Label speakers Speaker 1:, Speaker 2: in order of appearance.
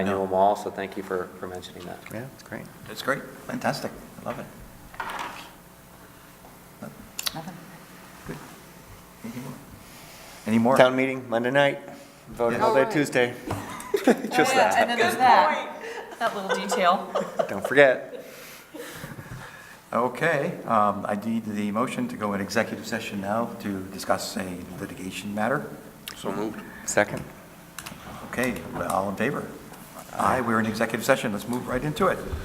Speaker 1: I knew them all, so thank you for, for mentioning that.
Speaker 2: Yeah, it's great.
Speaker 3: That's great, fantastic, I love it.
Speaker 4: Nothing.
Speaker 3: Good. Any more?
Speaker 2: Town meeting, Monday night, voting all
Speaker 3: Yeah.
Speaker 2: day Tuesday.
Speaker 4: Just that. Oh, And then there's that, that little detail.
Speaker 2: Don't forget.
Speaker 3: Okay, um, I need the motion to go in executive session now to discuss a litigation matter.
Speaker 1: So moved.
Speaker 2: Second.
Speaker 3: Okay, all in favor? Aye, we're in executive session, let's move right into it.